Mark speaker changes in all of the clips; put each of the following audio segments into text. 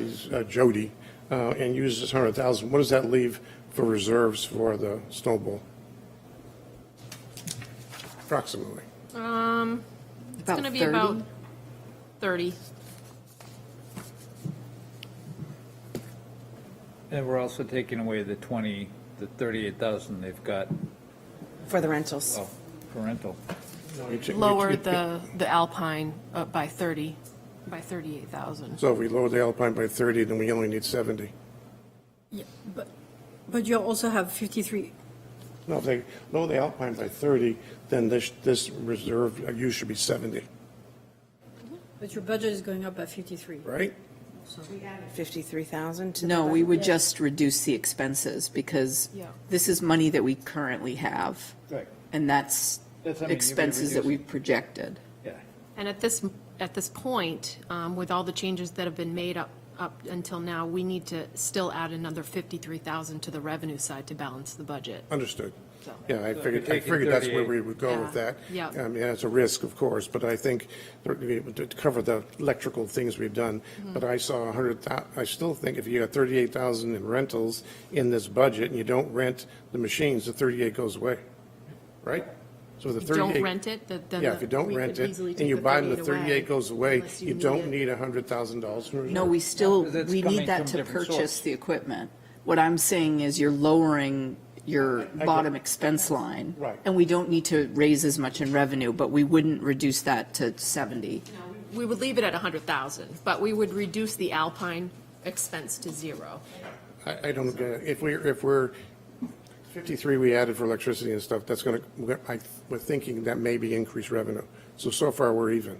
Speaker 1: is uh, Jody, uh, and uses this hundred thousand, what does that leave for reserves for the snowball? Approximately.
Speaker 2: Um, it's
Speaker 3: About
Speaker 2: gonna be
Speaker 3: 30?
Speaker 2: about thirty.
Speaker 4: And we're also taking away the 20, the 38,000 they've got
Speaker 3: For the rentals.
Speaker 4: oh, for rental.
Speaker 1: You ta- you-
Speaker 2: Lowered the, the Alpine up by thirty, by thirty-eight thousand.
Speaker 1: So if we lower the Alpine by thirty, then we only need seventy.
Speaker 5: But, but you also have 53,
Speaker 1: No, if they lower the Alpine by thirty, then this, this reserve uh, use should be seventy,
Speaker 5: but your budget is going up by 53.
Speaker 1: right?
Speaker 3: 53,000 to the
Speaker 6: No, we
Speaker 3: budget?
Speaker 6: would just reduce the expenses because
Speaker 2: Yeah.
Speaker 6: this is money that we currently have.
Speaker 4: Right.
Speaker 6: And that's
Speaker 4: That's what I mean, you'd be
Speaker 6: expenses that
Speaker 4: reducing.
Speaker 6: we've projected.
Speaker 4: Yeah.
Speaker 2: And at this, at this point, um, with all the changes that have been made up, up until now, we need to still add another fifty-three thousand to the revenue side to balance the budget.
Speaker 1: Understood.
Speaker 2: So-
Speaker 1: Yeah, I
Speaker 4: So
Speaker 1: figured,
Speaker 4: if we
Speaker 1: I
Speaker 4: take
Speaker 1: figured that's where
Speaker 4: 38.
Speaker 1: we would go with
Speaker 2: Yeah,
Speaker 1: that.
Speaker 2: yeah.
Speaker 1: I mean, it's a risk, of course, but I think to be able to cover the electrical things we've done.
Speaker 2: Mm-hmm.
Speaker 1: But I saw a hundred thou, I still think if you got thirty-eight thousand in rentals in this budget and you don't rent the machines, the thirty-eight goes away, right? So the
Speaker 2: If you don't
Speaker 1: thirty-eight,
Speaker 2: rent it, that- then.
Speaker 1: yeah, if
Speaker 2: the-
Speaker 1: you don't
Speaker 2: we
Speaker 1: rent
Speaker 2: could
Speaker 1: it
Speaker 2: easily
Speaker 1: and
Speaker 2: take
Speaker 1: you buy them, the
Speaker 2: away,
Speaker 1: thirty-eight goes away,
Speaker 2: unless
Speaker 1: you don't
Speaker 2: it.
Speaker 1: need a hundred thousand dollars from reserve.
Speaker 6: No, we still,
Speaker 4: because it's
Speaker 6: we
Speaker 4: coming
Speaker 6: need that
Speaker 4: from
Speaker 6: to
Speaker 4: different
Speaker 6: purchase
Speaker 4: source.
Speaker 6: the equipment. What I'm saying is you're lowering your bottom expense line.
Speaker 1: Right.
Speaker 6: And we don't need to raise as much in revenue, but we wouldn't reduce that to 70.
Speaker 2: We would leave it at a hundred thousand, but we would reduce the Alpine expense to zero.
Speaker 1: I, I don't, get it. if we're, if we're, 53 we added for electricity and stuff, that's going to, I, we're thinking that may be increased revenue. So, so far, we're even,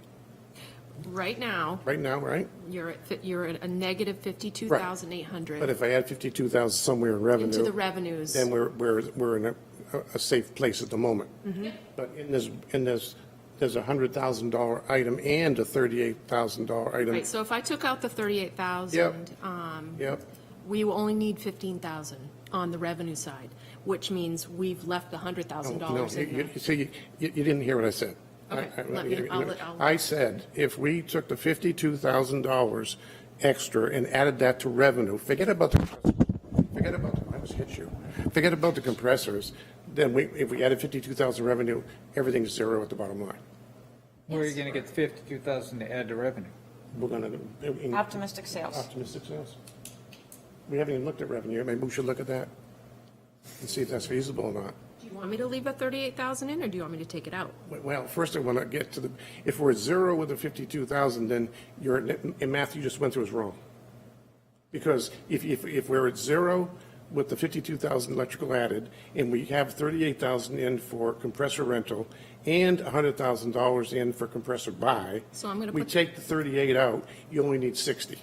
Speaker 2: Right now,
Speaker 1: right now, right?
Speaker 2: you're at, fi- you're at a negative fifty-two thousand eight hundred.
Speaker 1: But if I add 52,000 somewhere in revenue.
Speaker 2: Into the revenues.
Speaker 1: Then we're, we're, we're in a, a safe place at the moment.
Speaker 2: Mm-hmm.
Speaker 1: But in this, in this, there's a $100,000 item and a $38,000 item.
Speaker 2: Right, so if I took out the thirty-eight thousand,
Speaker 1: Yep.
Speaker 2: um,
Speaker 1: Yep,
Speaker 2: we will only need fifteen thousand on the revenue side, which means we've left the hundred thousand
Speaker 1: Oh, no,
Speaker 2: dollars
Speaker 1: you,
Speaker 2: in there.
Speaker 1: you- see, you, you didn't hear what I said. I-
Speaker 2: Okay,
Speaker 1: I-
Speaker 2: let me- I'll let- I'll-
Speaker 1: I said, if we took the $52,000 extra and added that to revenue, forget about the, forget about, the- I almost hit you, forget about the compressors, then we, if we added 52,000 revenue, everything's zero at the bottom line.
Speaker 4: Where are you going to get the 52,000 to add to revenue?
Speaker 1: We're gonna. in-
Speaker 3: Optimistic sales.
Speaker 1: Optimistic sales. We haven't even looked at revenue, maybe we should look at that and see if that's feasible or not.
Speaker 2: Do you want me to leave a thirty-eight thousand in, or do you want me to take it out?
Speaker 1: Well, first I want to get to the, if we're at zero with the 52,000, then your, in math you just went through is wrong. Because if, if, if we're at zero with the 52,000 electrical added, and we have 38,000 in for compressor rental and $100,000 in for compressor buy.
Speaker 2: So I'm gonna
Speaker 1: We
Speaker 2: put-
Speaker 1: take the 38 out, you only need 60,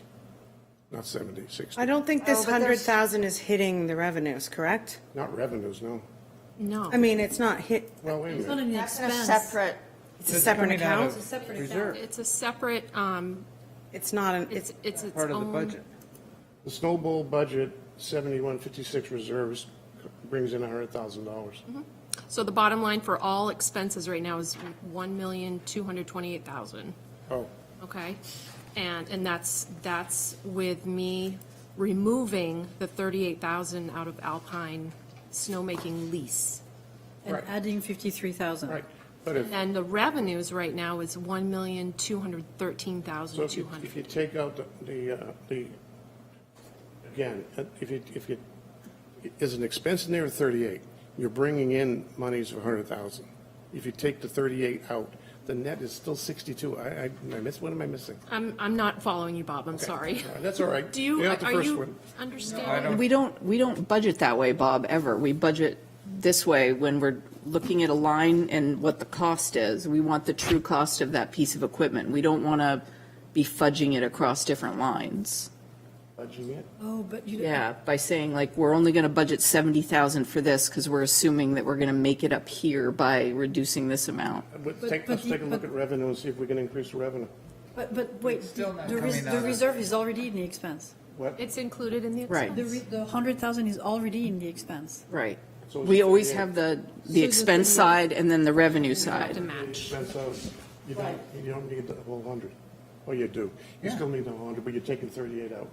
Speaker 1: not 70, 60.
Speaker 3: I don't think this
Speaker 6: Oh, but there's-
Speaker 3: 100,000 is hitting the revenues, correct?
Speaker 1: Not revenues, no.
Speaker 2: No.
Speaker 3: I mean, it's not hit,
Speaker 1: Well, wait a
Speaker 5: It's not
Speaker 1: minute.
Speaker 5: an expense.
Speaker 3: it's a separate
Speaker 4: coming out
Speaker 3: account.
Speaker 4: of
Speaker 5: separate
Speaker 4: Reserve,
Speaker 2: It's a separate, um,
Speaker 3: It's not, an.
Speaker 2: it's,
Speaker 3: it's,
Speaker 2: it's its
Speaker 4: part of the
Speaker 2: own-
Speaker 4: budget.
Speaker 1: The snowball budget, 7156 reserves brings in $100,000.
Speaker 2: So the bottom line for all expenses right now is one million, two hundred twenty-eight thousand.
Speaker 1: Oh,
Speaker 2: Okay, and, and that's, that's with me removing the thirty-eight thousand out of Alpine snowmaking lease.
Speaker 5: And adding 53,000.
Speaker 1: right. But if,
Speaker 2: And the revenues right now is one million, two hundred thirteen
Speaker 1: so
Speaker 2: thousand,
Speaker 1: if
Speaker 2: two
Speaker 1: you, if you
Speaker 2: hundred.
Speaker 1: take out the- the, uh, the, again, uh, if you, if you, is an expense in there of 38, you're bringing in monies of 100,000. If you take the 38 out, the net is still 62. I, I, did I missed, what am I missing?
Speaker 2: I'm, I'm not following you, Bob, I'm sorry.
Speaker 1: All right, That's all right.
Speaker 2: Do you,
Speaker 1: You're not the
Speaker 2: are
Speaker 1: first
Speaker 2: you
Speaker 1: one.
Speaker 2: understanding?
Speaker 6: We don't, we don't budget that way, Bob, ever. We budget this way when we're looking at a line and what the cost is. We want the true cost of that piece of equipment. We don't want to be fudging it across different lines.
Speaker 1: Budging it.
Speaker 5: Oh, but you.
Speaker 6: Yeah, by saying like, we're only going to budget 70,000 for this because we're assuming that we're going to make it up here by reducing this amount.
Speaker 1: But
Speaker 5: But-
Speaker 1: take,
Speaker 5: but
Speaker 1: let's
Speaker 5: you-
Speaker 1: take a look
Speaker 5: but-
Speaker 1: at revenue and see if we can increase the revenue.
Speaker 5: But, but wait,
Speaker 4: still not
Speaker 5: the, res-
Speaker 4: coming out
Speaker 5: the
Speaker 4: of-
Speaker 5: reserve is already in the expense.
Speaker 1: What?
Speaker 2: It's included in the
Speaker 6: Right.
Speaker 5: The,
Speaker 2: expense.
Speaker 5: re- the 100,000 is already in the expense.
Speaker 6: Right.
Speaker 1: So
Speaker 6: We
Speaker 1: it's-
Speaker 6: always
Speaker 1: yeah.
Speaker 6: have the, the uh, expense side and then the revenue
Speaker 2: To
Speaker 6: side.
Speaker 2: match.
Speaker 1: That's, uh, you don't, you don't need the whole hundred. Oh, you do. You still need the whole hundred, but you're taking thirty-eight out.